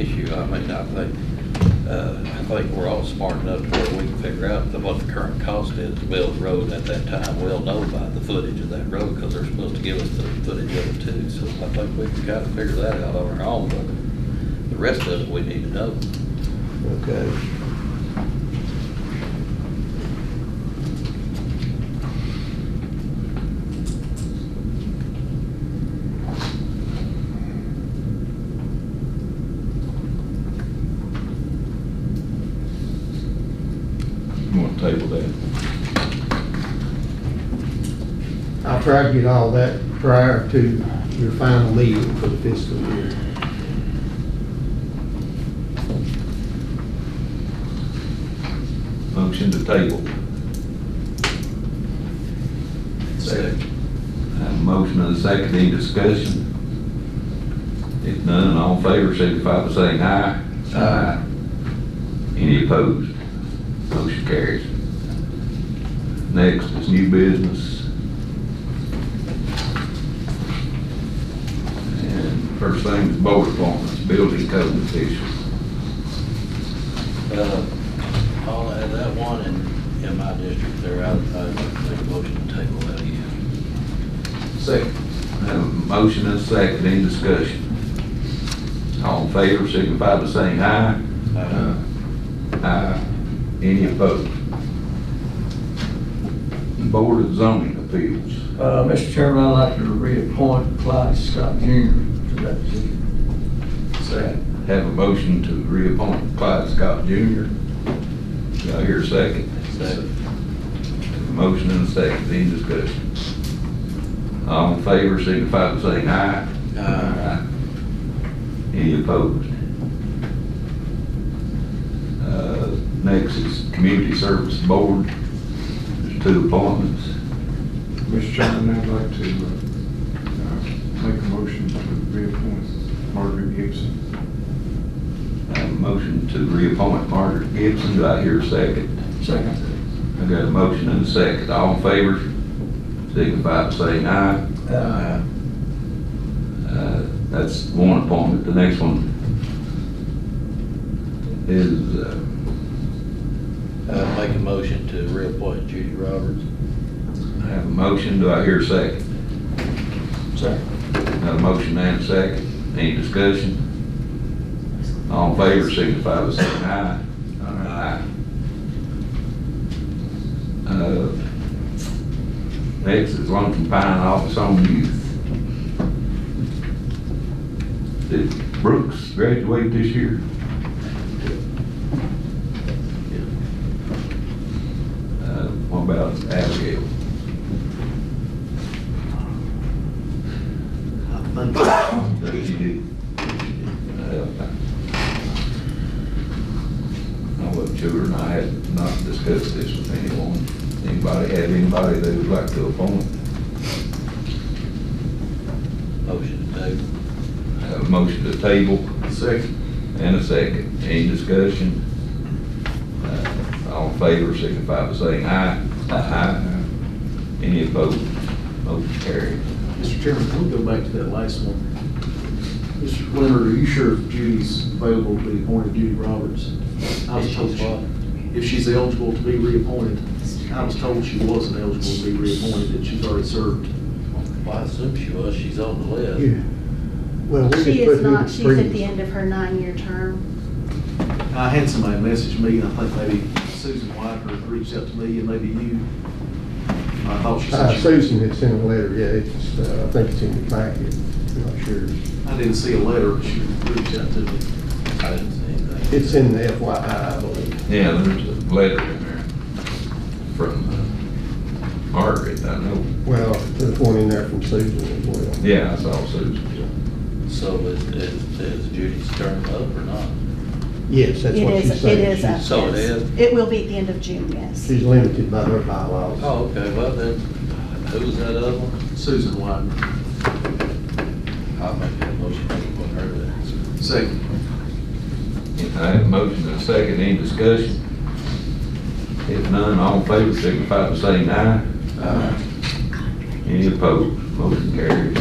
I mean, I think, uh, I think we're all smart enough to where we can figure out the- what the current cost is to build the road at that time. We'll know by the footage of that road, because they're supposed to give us the footage of it too. So I think we can kind of figure that out on our own, but the rest of it, we need to know. Okay. You want to table that? I tried to get all that prior to your final leave for the fiscal year. Motion to table. Have a Uh, motion and a second, any discussion? If none, all in favor, signify by saying aye. Aye. Any opposed? Motion carries. Next is new business. And first thing is board appointments, building code officials. Uh, I'll add that one in, in my district there. I, I'd like to make a motion to table that again. Second. Have a motion and a second, any discussion? All in favor, signify by saying aye. Uh, Aye. Any opposed? Board of Zoning Appeals. Uh, Mr. Chairman, I'd like to reappoint Clyde Scott Jr. to that position. Second. Have a motion to reappoint Clyde Scott Jr. Do I hear a second? Second. Have a Motion and a second, any discussion? All in favor, signify by saying aye. Aye. Any opposed? Uh, Next is Community Service Board. There's two appointments. Mr. Chairman, I'd like to uh, uh, make a motion to reappoint Margaret Gibson. I have a motion to reappoint Margaret Gibson. Do I hear a second? Second. I got a motion and a second. All in favor, signify by saying aye. Uh, Uh, That's one appointment. The next one is, uh, Uh, make a motion to reappoint Judy Roberts. I have a motion. Do I hear a second? Second. Got a motion and a second. Any discussion? All in favor, signify by saying aye. Aye. Uh, Next is Lumpkin Pine Office on Youth. Did Brooks graduate this year? Uh, What about Abigail? That you did. I wasn't sure, and I had not discussed this with anyone. Anybody, have anybody they would like to appoint? Motion to table. Have a motion to table Second. and a second. Any discussion? Uh, All in favor, signify by saying aye. Aye. Any opposed? Motion carried. Mr. Chairman, can we go back to that last one? Mr. Leonard, are you sure if Judy's available to be appointed, Judy Roberts? I was told she- If she's eligible to be reappointed, I was told she wasn't eligible to be reappointed, that she's already served. Well, I assume she was, she's on the list. Yeah. Well, we She just put is who not, the she's at the previous. end of her nine-year term. I had somebody message me, and I think maybe Susan Whitaker reached out to me, and maybe you. I thought she Uh, said she, Susan had sent a letter, yeah, it's, uh, I think it's in the packet, I'm not sure. I didn't see a letter, but she reached out to me. I didn't see anything. It's in the FYI, I believe. Yeah, there's a letter in there from uh, Margaret, I know. Well, there's one in there from Susan as well. Yeah, I saw Susan. So is, is is Judy's term up or not? Yes, that's It what she is, it said. is up. She's- So it yes. is? It will be at the end of June, yes. She's limited by her bylaws. Oh, okay, well then, who's that other one? Susan Whitaker, I'll make that motion to appoint her then. second. If I have a motion and a second, any discussion? If none, all in favor, signify by saying aye. Uh, Aye. Any opposed, motion carries.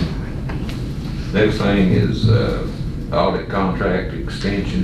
Next thing is uh, audit contract extension